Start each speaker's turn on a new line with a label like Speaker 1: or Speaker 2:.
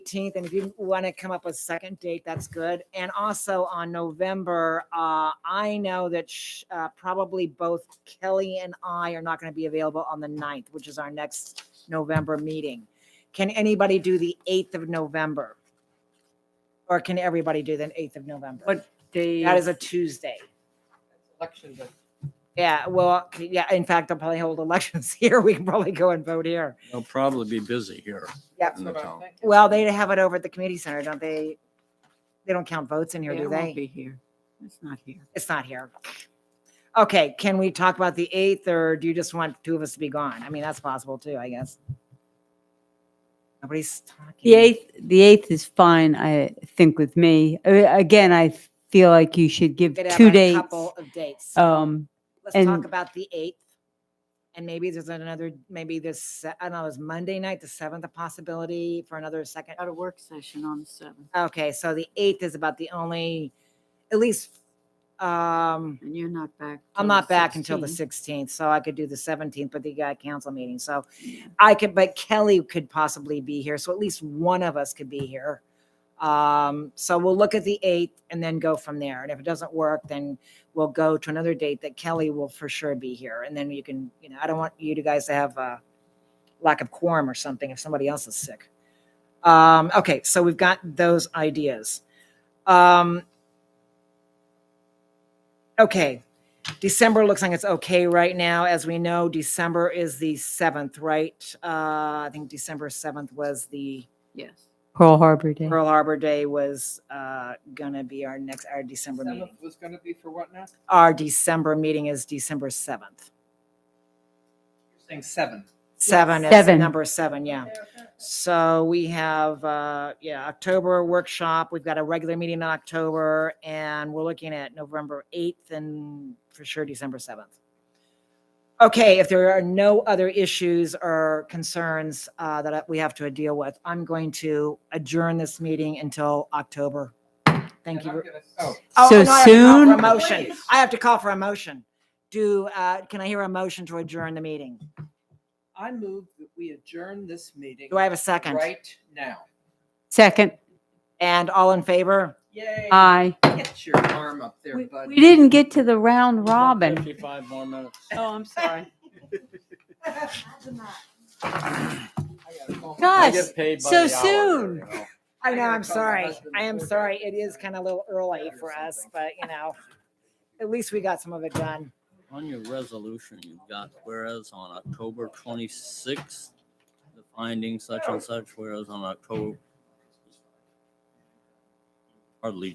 Speaker 1: 18th. And if you want to come up with a second date, that's good. And also on November, uh, I know that sh- uh, probably both Kelly and I are not going to be available on the 9th, which is our next November meeting. Can anybody do the 8th of November? Or can everybody do the 8th of November?
Speaker 2: What day?
Speaker 1: That is a Tuesday.
Speaker 3: election day.
Speaker 1: Yeah, well, c- yeah, in fact, I'll probably hold elections here. We can probably go and vote here.
Speaker 4: They'll probably be busy here.
Speaker 1: Yep.
Speaker 4: in the town.
Speaker 1: Well, they have it over at the community center, don't they? They don't count votes in
Speaker 2: Yeah,
Speaker 1: here, do
Speaker 2: it won't
Speaker 1: they?
Speaker 2: be here. It's not here.
Speaker 1: It's not here. Okay, can we talk about the eighth or do you just want two of us to be gone? I mean, that's possible too, I guess. Nobody's talking.
Speaker 5: The eighth, the eighth is fine, I think, with me. Uh, Again, I feel like you should give
Speaker 1: Could have
Speaker 5: two
Speaker 1: a
Speaker 5: dates.
Speaker 1: Couple of dates.
Speaker 5: Um,
Speaker 1: Let's talk
Speaker 5: and-
Speaker 1: about the eighth. And maybe there's another, maybe this, se- I don't know, is Monday night, the seventh, a possibility for another second
Speaker 2: Got a work session on the seventh,
Speaker 1: Okay, so the eighth is about the only, at least, um,
Speaker 2: and you're not back. till
Speaker 1: I'm
Speaker 2: the
Speaker 1: not back until the
Speaker 2: 16th.
Speaker 1: sixteenth, so I could do the seventeenth, but the guy council meeting, so I could, but Kelly could possibly be here, so at least one of us could be here. Um, so we'll look at the eighth and then go from there, and if it doesn't work, then we'll go to another date that Kelly will for sure be here, and then you can, you know, I don't want you to guys to have a lack of quorum or something if somebody else is sick. Um, okay, so we've got those ideas. Um, okay, December looks like it's okay right now. As we know, December is the seventh, right? Uh, I think December seventh was the
Speaker 2: Yes.
Speaker 5: Pearl Harbor Day.
Speaker 1: Pearl Harbor Day was, uh, gonna be our next, our December meeting.
Speaker 3: Seventh was gonna be for what now?
Speaker 1: Our December meeting is December seventh.
Speaker 3: You're saying seven.
Speaker 1: Seven is
Speaker 5: Seven.
Speaker 1: number seven, yeah. So we have, uh, yeah, October workshop. We've got a regular meeting in October and we're looking at November 8th and for sure December 7th. Okay, if there are no other issues or concerns, uh, that we have to deal with, I'm going to adjourn this meeting until October. Thank
Speaker 3: And I'm
Speaker 1: you.
Speaker 3: gonna- Oh,
Speaker 1: Oh,
Speaker 5: So
Speaker 1: no, I have to call for
Speaker 5: soon?
Speaker 1: A motion.
Speaker 3: Please.
Speaker 1: I have to call for a motion. Do, uh, can I hear a motion to adjourn the meeting?
Speaker 3: I move that we adjourn this meeting.
Speaker 1: Do I have a second?
Speaker 3: Right now.
Speaker 5: Second,
Speaker 1: And all in favor?
Speaker 3: Yay.
Speaker 1: Uh,
Speaker 5: aye.
Speaker 3: Get your arm up there,
Speaker 5: We
Speaker 3: bud.
Speaker 5: we didn't get to the round robin.
Speaker 4: Fifty-five more minutes.
Speaker 2: Oh, I'm sorry.
Speaker 3: I gotta call my-
Speaker 4: I
Speaker 5: Gosh,
Speaker 4: get paid by
Speaker 5: so
Speaker 4: the hour here,
Speaker 5: soon.
Speaker 4: you know.
Speaker 1: I know, I'm
Speaker 3: gotta call my
Speaker 1: sorry.
Speaker 3: husband
Speaker 1: I am
Speaker 3: before
Speaker 1: sorry.
Speaker 3: that.
Speaker 1: It is kind of a little early
Speaker 3: Or
Speaker 1: for us,
Speaker 3: something.
Speaker 1: but you know, at least we got some of it done.
Speaker 4: On your resolution, you've got whereas on October twenty-sixth, the finding such and such, whereas on October hardly